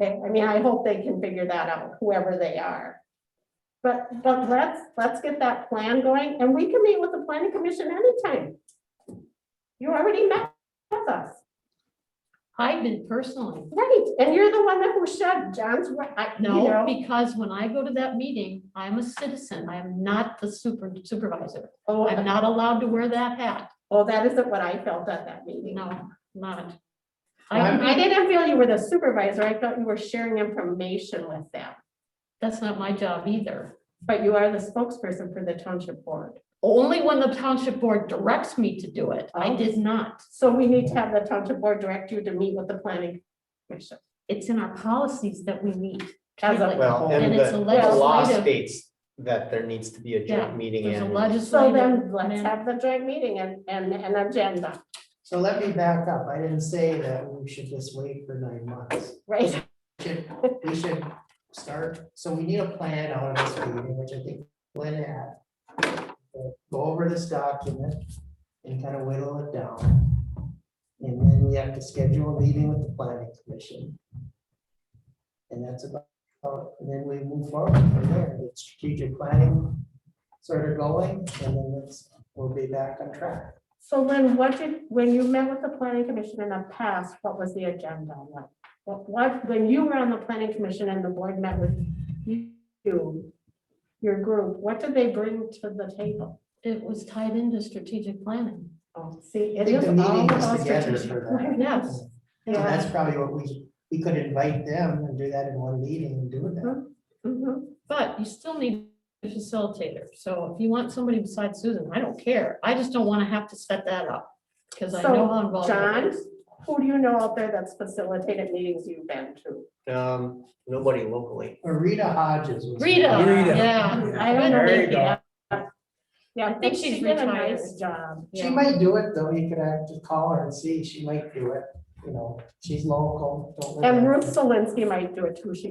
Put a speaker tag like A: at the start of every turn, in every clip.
A: Okay, I mean, I hope they can figure that out, whoever they are. But, but let's, let's get that plan going, and we can meet with the planning commission anytime. You already met with us,
B: I've been personally,
A: right, and you're the one that was shut, John's, right, I- you
B: no,
A: know,
B: because when I go to that meeting, I'm a citizen. I am not the super supervisor.
A: oh,
B: I'm not allowed to wear that hat.
A: oh, that isn't what I felt at that meeting.
B: No, not. I can
A: I I
B: be-
A: didn't feel you were the supervisor, I felt you were sharing information with them,
B: That's not my job either.
A: but you are the spokesperson for the township board.
B: Only when the township board directs me to do it. I
A: Oh.
B: did not.
A: So we need to have the township board direct you to meet with the planning commission.
B: It's in our policies that we meet.
A: As a-
C: Well, and
B: And it's
C: the
B: a
C: the law
B: legislative-
C: states that there needs to be a
B: Yeah,
C: joint meeting
B: There's a
C: and
A: So
B: legislative.
A: then let's have the joint meeting and, and an agenda,
D: So let me back up. I didn't say that we should just wait for nine months.
A: right?
D: Should, we should start, so we need a plan out of this meeting, which I think Glenn had. Go over this document and kind of whittle it down. And then we have to schedule a meeting with the planning commission. And that's about, and then we move forward from there, get strategic planning sort of going, and then it's, we'll be back on track.
A: So Lynn, what did, when you met with the planning commission in the past, what was the agenda? What- What, what, when you were on the planning commission and the board met with you, your group, what did they bring to the table?
B: It was tied into strategic planning.
A: Oh, See,
D: I
A: it
D: think
A: is
D: the
A: all
D: meeting
A: about
D: is together
A: strategic.
D: for that.
B: Yes.
D: And
A: Yeah.
D: that's probably what we, we could invite them and do that in one meeting and do that.
A: Mhm.
B: But you still need a facilitator, so if you want somebody besides Susan, I don't care, I just don't wanna have to set that up. Cause I know how involved. it
A: John,
B: is.
A: who do you know out there that's facilitated meetings you've been to?
C: um, nobody locally.
D: Or Rita Hodges was.
B: Rita,
E: Rita.
B: yeah.
A: I don't know.
E: There
A: if
E: you
A: she
E: go.
A: has- Yeah, I think
B: she's
A: she did a
B: retired.
A: nice job.
D: She might do it though. You could have to call her and see. She might do it, you know, she's local. don't live
A: And
D: in-
A: Ruth Solinsky might do it too, she.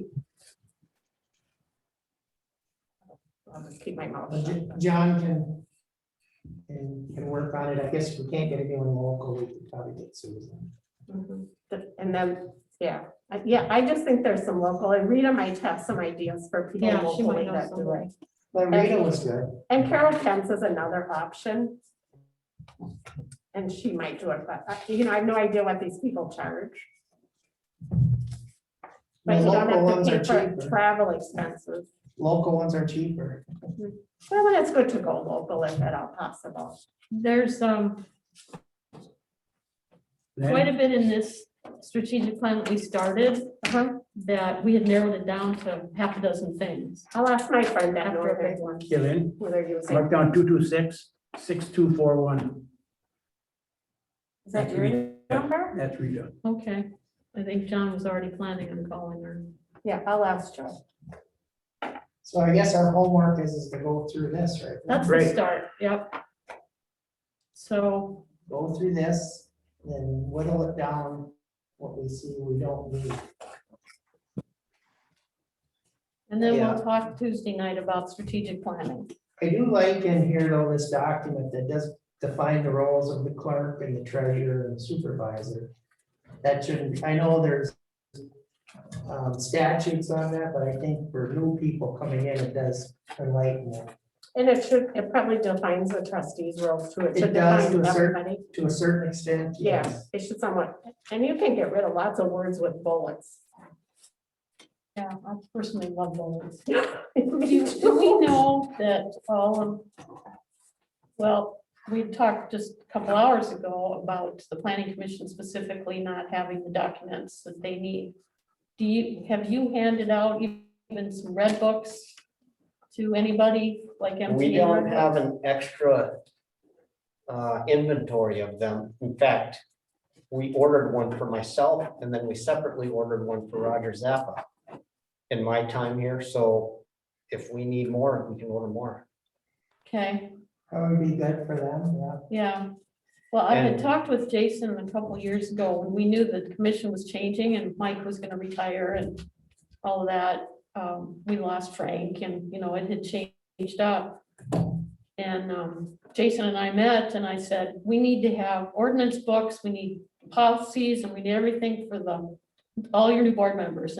A: I'll just keep my mouth
D: But
A: shut.
D: J- John can, can, can work on it. I guess if we can't get anyone local, we could probably get Susan. Mm-hmm.
A: Mhm. But- And then, yeah, I- yeah, I just think there's some local, and Rita might have some ideas for people
B: Yeah, she might
A: locally
B: know
A: that do
B: somebody.
A: it.
D: But Rita was good.
A: And Carol Kentz is another option. And she might do it, but, uh, you know, I have no idea what these people charge. But
D: The
A: you don't
D: local ones are
A: have to pay for
D: cheaper.
A: travel expenses.
D: Local ones are cheaper.
A: Well, it's good to go local if at all possible.
B: There's, um, quite a bit in this strategic plan that we started,
A: Uh-huh.
B: that we had narrowed it down to half a dozen things.
A: I'll ask my friend that
B: After a
A: Northern
B: big
A: one,
E: Dylan,
A: who they're using.
E: mark down two two six, six two four one,
A: Is that your number?
E: that's Rita.
B: Okay, I think John was already planning on calling her.
A: Yeah, I'll ask Joe.
D: So I guess our homework is, is to go through this, right?
B: That's the
E: Great.
B: start, yep. So,
D: go through this, then whittle it down, what we see we don't need.
B: and then
D: Yeah.
B: we'll talk Tuesday night about strategic planning.
D: I do like in here though, this document that does define the roles of the clerk and the treasurer and supervisor. That shouldn't, I know there's um, statutes on that, but I think for new people coming in, it does enlighten them
A: And it should, it probably defines the trustees' roles too. It should
D: It does
A: define
D: to a certain-
A: everybody.
D: to a certain extent.
A: Yeah, it should somewhat, and you can get rid of lots of words with bullets.
B: Yeah, I personally love those. Do
A: Well,
B: do we know that all of, well, we talked just a couple hours ago about the planning commission specifically not having the documents that they need. Do you, have you handed out even some red books to anybody like MTA?
C: We don't
B: red
C: have
B: books?
C: an extra uh, inventory of them. In fact, we ordered one for myself and then we separately ordered one for Roger Zappa in my time here, so if we need more, we can order more.
B: Okay.
D: That would be good for them, yeah.
B: Yeah, well, I had
C: And-
B: talked with Jason a couple years ago when we knew that the commission was changing and Mike was gonna retire and all of that. Um, we lost Frank and, you know, it had changed up. And, um, Jason and I met and I said, we need to have ordinance books, we need policies and we need everything for the, all your new board members.